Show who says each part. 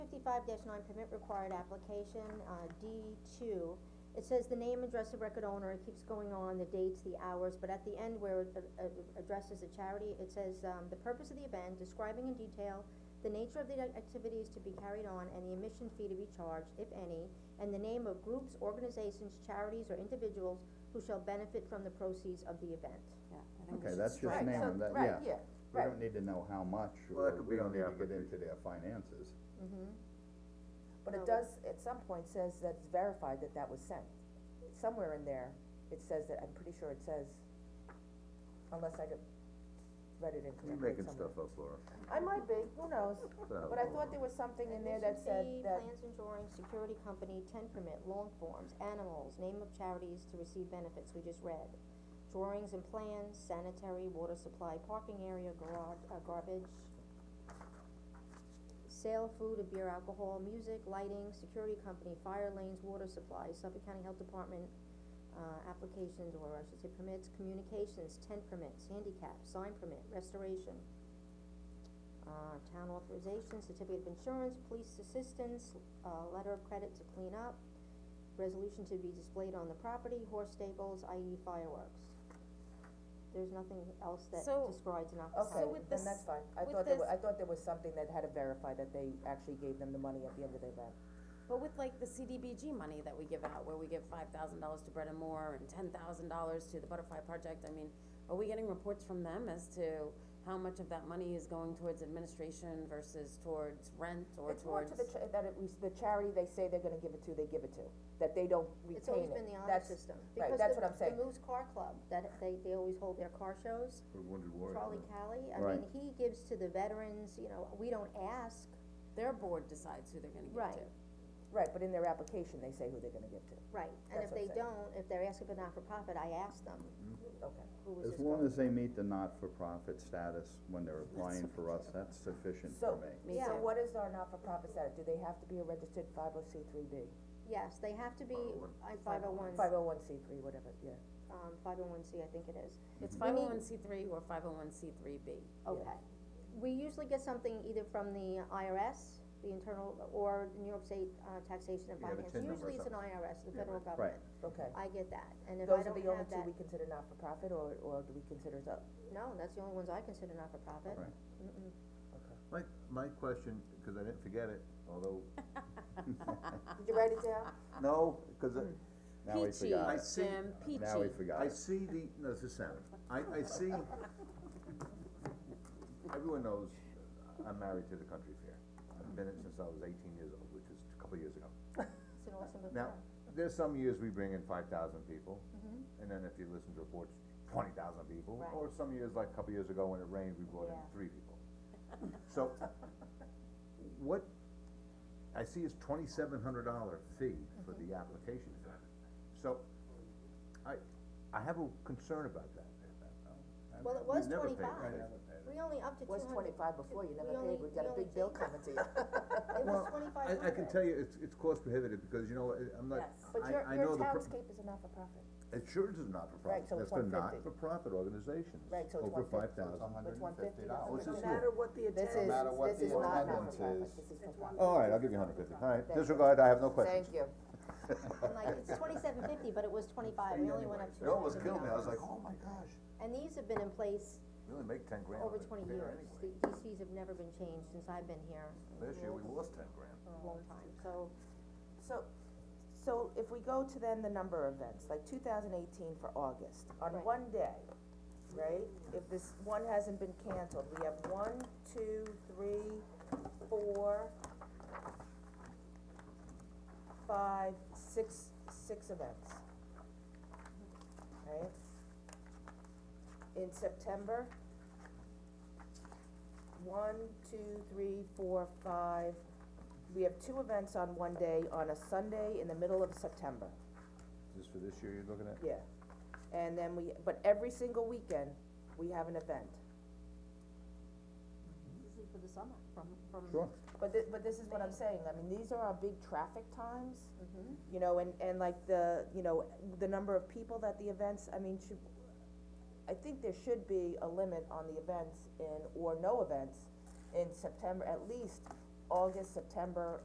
Speaker 1: sixty-five nine, permit required application, uh, D two, it says the name, address, of record owner, it keeps going on, the dates, the hours, but at the end where it, uh, uh, addresses the charity, it says, um, the purpose of the event, describing in detail the nature of the activities to be carried on and the admission fee to be charged, if any, and the name of groups, organizations, charities, or individuals who shall benefit from the proceeds of the event.
Speaker 2: Yeah, I think we
Speaker 3: Okay,
Speaker 2: should
Speaker 3: that's just
Speaker 2: strike-
Speaker 3: name
Speaker 2: so-
Speaker 3: them, that- yeah.
Speaker 2: Right, yeah,
Speaker 3: We
Speaker 2: right,
Speaker 3: don't need to know how much,
Speaker 4: Well, that
Speaker 3: or
Speaker 4: could
Speaker 3: we
Speaker 4: be
Speaker 3: don't
Speaker 4: on
Speaker 3: need
Speaker 4: the
Speaker 3: to get into their finances.
Speaker 1: Mm-hmm.
Speaker 2: but
Speaker 5: Oh,
Speaker 2: it
Speaker 1: No.
Speaker 2: does, at some point says that it's verified that that was sent. Somewhere in there, it says that, I'm pretty sure it says, unless I could, read it
Speaker 4: You're
Speaker 2: incorrectly
Speaker 4: making
Speaker 2: somewhere.
Speaker 4: stuff up, Oh, Laura.
Speaker 2: I might be, who knows, but I
Speaker 4: uh,
Speaker 2: thought there was something in there that said
Speaker 1: Admission fee,
Speaker 2: that,
Speaker 1: plans and drawings, security company, ten permit, lawn forms, animals, name of charities to receive benefits, we just read. Drawings and plans, sanitary, water supply, parking area, garage, uh, garbage. Sale, food, and beer, alcohol, music, lighting, security company, fire lanes, water supply, Suffolk County Health Department, uh, applications, or I should say permits, communications, tent permits, handicap, sign permit, restoration uh, town authorization, certificate of insurance, police assistance, uh, letter of credit to clean up, resolution to be displayed on the property, horse stables, i.e. fireworks. There's nothing else that
Speaker 5: So-
Speaker 1: describes an officer.
Speaker 2: okay,
Speaker 5: So with
Speaker 2: then
Speaker 5: this-
Speaker 2: that's fine, I
Speaker 5: with
Speaker 2: thought there wa-
Speaker 5: this-
Speaker 2: I thought there was something that had to verify that they actually gave them the money at the end of the event.
Speaker 5: But with like the CDBG money that we give out, where we give five thousand dollars to Bread and More and ten thousand dollars to the Butterfly Project, I mean, are we getting reports from them as to how much of that money is going towards administration versus towards rent or
Speaker 2: It's more
Speaker 5: towards?
Speaker 2: to the cha- that it was the charity they say they're gonna give it to, they give it to, that they don't retain it,
Speaker 1: It's always been the honor
Speaker 2: That's-
Speaker 1: system.
Speaker 2: right,
Speaker 1: Because
Speaker 2: that's
Speaker 1: the-
Speaker 2: what I'm saying.
Speaker 1: The Moose Car Club, that they, they always hold their car shows, Charlie Cali, I mean,
Speaker 3: Right.
Speaker 1: he gives to the veterans, you know, we don't ask,
Speaker 5: Their board decides who they're gonna give to.
Speaker 1: Right.
Speaker 2: Right, but in their application, they say who they're gonna give to,
Speaker 1: right, and
Speaker 2: That's
Speaker 1: if
Speaker 2: what I'm
Speaker 1: they
Speaker 2: saying.
Speaker 1: don't, if they're asking for not-for-profit, I ask them,
Speaker 2: okay.
Speaker 1: who was
Speaker 3: As
Speaker 1: this
Speaker 3: long
Speaker 1: going?
Speaker 3: as they meet the not-for-profit status when they're applying for us, that's sufficient for
Speaker 2: So,
Speaker 3: me.
Speaker 5: Me
Speaker 2: so
Speaker 5: too.
Speaker 2: what is our not-for-profit status? Do they have to be a registered five oh C three B?
Speaker 1: Yes, they have to be, I, five oh one,
Speaker 2: Five oh one C three, whatever, yeah.
Speaker 1: um, five oh one C, I think it is.
Speaker 5: It's
Speaker 1: We
Speaker 5: five
Speaker 1: need-
Speaker 5: oh one C three or five oh one C three B.
Speaker 1: Okay. We usually get something either from the IRS, the internal, or the New York State, uh, taxation and
Speaker 4: You got a
Speaker 1: finance,
Speaker 4: tin number or
Speaker 1: usually it's an IRS, the federal
Speaker 3: Right,
Speaker 1: government.
Speaker 2: Okay.
Speaker 1: I get that, and if I
Speaker 2: Those
Speaker 1: don't
Speaker 2: are the only
Speaker 1: have
Speaker 2: two
Speaker 1: that,
Speaker 2: we consider not-for-profit, or, or do we consider the,
Speaker 1: no, that's the only ones I consider not-for-profit.
Speaker 3: Right.
Speaker 1: Mm-mm.
Speaker 2: okay.
Speaker 4: My, my question, cause I didn't forget it, although,
Speaker 2: Did you write it down?
Speaker 4: no, cause I-
Speaker 3: now we forgot it,
Speaker 4: see-
Speaker 5: Jim, peachy.
Speaker 3: now we forgot
Speaker 4: I
Speaker 3: it.
Speaker 4: see the, no, this is Sam, I, I see, everyone knows, I'm married to the country fair. I've been it since I was eighteen years old, which is a couple of years ago.
Speaker 1: It's an awesome
Speaker 4: Now,
Speaker 1: event.
Speaker 4: there's some years we bring in five thousand people,
Speaker 2: Mm-hmm.
Speaker 4: and then if you listen to reports, twenty thousand people,
Speaker 1: Right.
Speaker 4: or some years, like a couple years ago when it rained, we brought in
Speaker 1: Yeah.
Speaker 4: three people. So, what I see is twenty-seven hundred dollar fee for
Speaker 2: Mm-hmm.
Speaker 4: the application fee. So, I, I have a concern about that.
Speaker 1: Well, it was
Speaker 4: We've never paid
Speaker 1: twenty-five,
Speaker 4: that.
Speaker 1: we only up to two
Speaker 2: Was
Speaker 1: hundred.
Speaker 2: twenty-five before, you never
Speaker 1: We only-
Speaker 2: paid, we've
Speaker 1: we
Speaker 2: got a
Speaker 1: only
Speaker 2: big bill
Speaker 1: changed-
Speaker 2: coming to you.
Speaker 1: It was twenty-five hundred.
Speaker 4: I, I can tell you, it's, it's cost prohibitive, because you know, I- I'm not,
Speaker 5: Yes.
Speaker 2: But your,
Speaker 4: I, I
Speaker 2: your
Speaker 4: know the, pro-
Speaker 2: townscape is a not-for-profit,
Speaker 4: insurance is not for
Speaker 2: Right,
Speaker 4: profit,
Speaker 2: so it's
Speaker 4: that's for
Speaker 2: 150.
Speaker 4: not-for-profit organizations,
Speaker 2: Right, so it's
Speaker 4: over
Speaker 2: 150.
Speaker 4: five thousand.
Speaker 2: it's one fifty
Speaker 4: Oh,
Speaker 2: dollars.
Speaker 4: it's just
Speaker 6: No matter what the
Speaker 2: This
Speaker 6: attendance.
Speaker 2: is,
Speaker 3: matter what
Speaker 2: this
Speaker 3: the
Speaker 2: is not
Speaker 3: attendance
Speaker 2: not-for-profit,
Speaker 3: is,
Speaker 2: this is for
Speaker 6: one-
Speaker 4: All right, I'll give you a hundred fifty, all right,
Speaker 2: Thank you.
Speaker 4: disregard, I have no
Speaker 2: Thank
Speaker 4: questions.
Speaker 2: you.
Speaker 1: I'm like, it's twenty-seven fifty, but it was twenty-five, we only went up to.
Speaker 4: It almost
Speaker 1: $200.
Speaker 4: killed me, I was like, oh my gosh,
Speaker 1: And these have been in place
Speaker 4: we only make ten grand.
Speaker 1: over
Speaker 4: on it
Speaker 1: twenty
Speaker 4: there
Speaker 1: years,
Speaker 4: anyway.
Speaker 1: The- these fees have never been changed since I've been here.
Speaker 4: This year, we lost ten grand.
Speaker 1: A long time, so.
Speaker 2: So, so if we go to then the number of events, like two thousand eighteen for August, on
Speaker 1: Right.
Speaker 2: one day, right? If this one hasn't been canceled, we have one, two, three, four, five, six, six events. Right? In September, one, two, three, four, five, we have two events on one day, on a Sunday in the middle of September,
Speaker 4: Is this for this year you're looking at?
Speaker 2: yeah. And then we, but every single weekend, we have an event.
Speaker 5: This is for the summer, from, from.
Speaker 3: Sure,
Speaker 2: But thi- but this is what I'm saying, I mean, these are our big traffic times, you know, and, and like the, you know, the number of people that the events, I mean, should, I think there should be a limit on the events in, or no events in September, at least August, September,